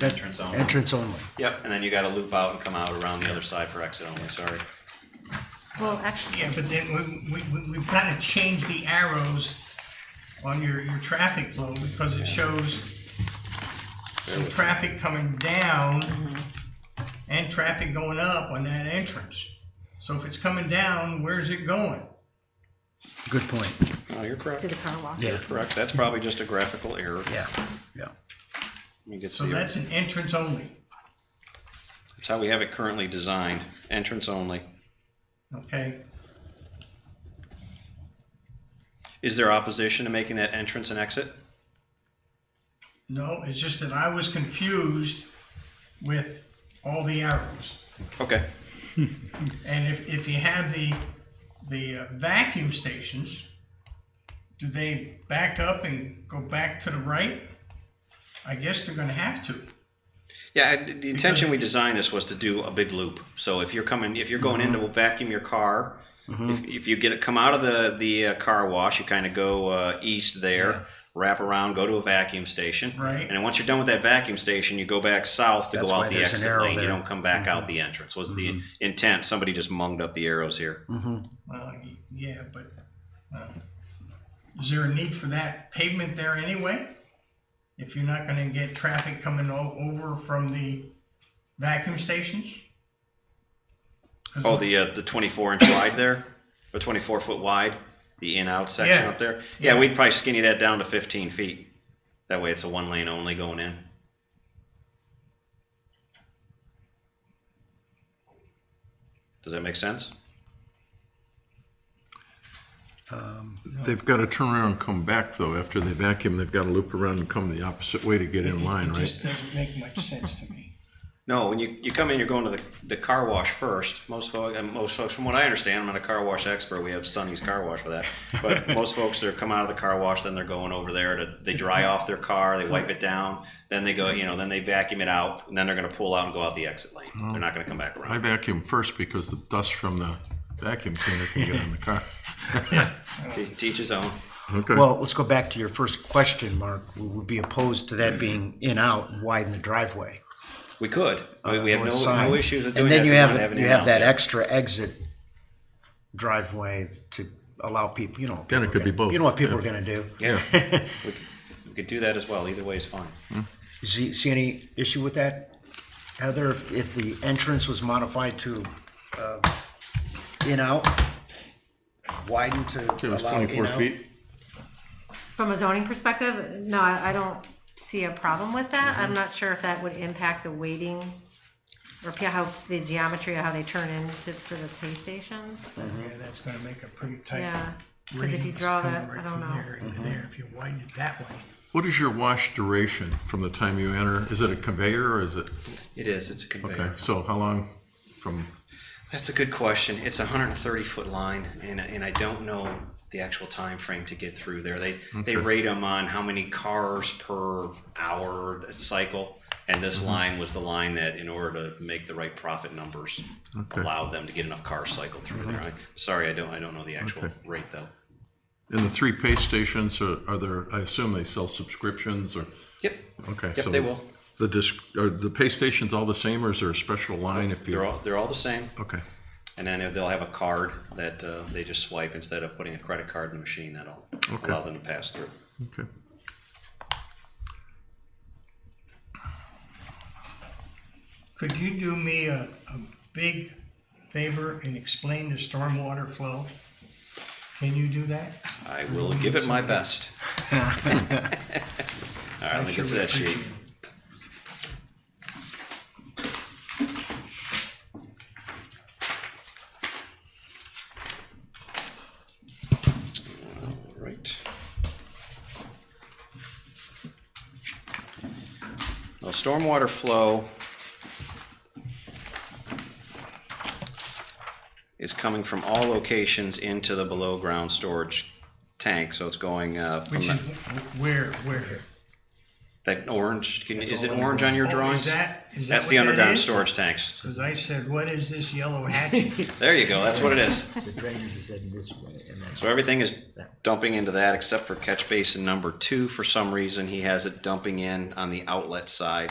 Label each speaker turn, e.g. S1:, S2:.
S1: entrance only.
S2: entrance only.
S1: Yep, and then you gotta loop out and come out around the other side for exit only, sorry.
S3: Well, actually,
S4: Yeah, but then we, we, we- we've got to change the arrows on your, your traffic flow because it shows some traffic coming down and traffic going up on that entrance. So if it's coming down, where's it going?
S2: Good point.
S1: No, you're correct.
S3: to the car wash.
S2: Yeah,
S1: Correct, that's probably just a graphical error.
S2: yeah, yeah.
S1: Let me get to
S4: So
S1: the-
S4: that's an entrance only.
S1: That's how we have it currently designed, entrance only.
S4: Okay,
S1: Is there opposition to making that entrance and exit?
S4: no, it's just that I was confused with all the arrows.
S1: Okay,
S4: And if, if you have the, the uh, vacuum stations, do they back up and go back to the right? I guess they're gonna have to.
S1: yeah, I- the intention we designed this was to do a big loop. So if you're coming, if you're going in
S2: Mm-hmm.
S1: to vacuum your car, if, if you get it, come out of the, the uh, car wash, you kind of go uh, east there, wrap around, go to a vacuum station.
S4: Right.
S1: And then once you're done with that vacuum station, you go back south to
S2: That's
S1: go
S2: why
S1: out the
S2: there's an
S1: exit
S2: arrow
S1: lane. You
S2: there. Mm-hmm.
S1: don't come back out the entrance, was the intent. Somebody just munged up the arrows here.
S4: Well, y- yeah, but, uh, is there a need for that pavement there anyway? If you're not gonna get traffic coming o- over from the vacuum stations? 'Cause
S1: Oh, the uh, the 24 inch wide there, or 24 foot wide, the in out section
S4: Yeah.
S1: up there. Yeah, we'd probably skinny that down to 15 feet. That way, it's a one lane only going in. Does that make sense?
S5: They've got to turn around and come back, though, after they vacuum, they've got to loop around and come the opposite way to get in line,
S4: It
S5: right?
S4: just doesn't make much sense to me.
S1: No, when you, you come in, you're going to the, the car wash first. Most folks, most folks, from what I understand, I'm not a car wash expert. We have Sonny's Car Wash for that. But most folks, they're come out of the car wash, then they're going over there to they dry off their car, they wipe it down, then they go, you know, then they vacuum it out, and then they're going to pull out and go out the exit lane. They're not going to come back
S5: I
S1: around.
S5: vacuum first because the dust from the vacuum cleaner can get on the car.
S1: Te- teach his own.
S5: Okay.
S2: Well, let's go back to your first question, Mark. We would be opposed to that being in out and widen the driveway.
S1: We could. We, we have
S2: North
S1: no,
S2: side.
S1: no issues with doing
S2: And then
S1: that.
S2: you
S1: if we
S2: have,
S1: wanna an
S2: you have
S1: in-out
S2: that
S1: there.
S2: extra exit driveway to allow people, you know.
S5: Then it
S2: people
S5: could be
S2: are gonna- You
S5: both,
S2: know what people
S5: yeah.
S2: are gonna do.
S1: Yeah. we, could, we could do that as well. Either way is fine.
S2: See, see any issue with that? Heather, if, if the entrance was modified to, uh, in out, widened
S5: It
S2: to
S5: was
S2: allow in
S5: twenty-four
S2: out?
S5: feet.
S3: From a zoning perspective, no, I, I don't see a problem with that. I'm not sure if that would impact the weighting or p- how the geometry of how they turn into for the pay stations.
S4: Yeah, that's gonna make a pretty tight
S3: Yeah, because if you
S4: radius
S3: draw
S4: coming
S3: that,
S4: right
S3: I don't
S4: from
S3: know.
S4: there
S5: Mm-hmm.
S4: into there, if you widen it that way.
S5: What is your wash duration from the time you enter? Is it a conveyor or is it?
S1: It is. It's a conveyor.
S5: Okay, so how long from,
S1: That's a good question. It's a 130 foot line, and, and I don't know the actual time frame to get through there. They they rate them on how many cars per hour cycle, and
S5: Mm-hmm.
S1: this line was the line that, in order to make the right profit numbers, allowed them to get enough cars cycled through there. I, sorry, I don't I don't know the actual
S5: Mm-hmm. Okay.
S1: rate though.
S5: in the three pay stations, or are there, I assume they sell subscriptions or?
S1: Yep.
S5: Okay.
S1: Yep,
S5: so
S1: they will.
S5: The disc, are the pay stations all the same or is there a special line if you?
S1: They're all they're all the same,
S5: Okay,
S1: and then they'll have a card that uh, they just swipe instead of putting a credit card in the machine. That'll
S5: Okay.
S1: allow them to pass through.
S5: okay.
S4: Could you do me a, a big favor and explain the stormwater flow? Can you do that?
S1: I will give it my best. All right, let me get to that sheet. All right. Now, stormwater flow is coming from all locations into the below-ground storage tank, so it's going uh, from
S4: Which
S1: that-
S4: is wh- where, where?
S1: that orange, can- is it orange on your
S4: Oh, is
S1: drawings?
S4: that- is that
S1: That's
S4: what
S1: the
S4: that
S1: underground
S4: is?
S1: storage tanks.
S4: Cause I said, what is this yellow hatchet?
S1: There you go, that's what it is.
S2: The drainage is heading this way and that's.
S1: So everything is dumping into that except for catch basin number two. For some reason, he has it dumping in on the outlet side.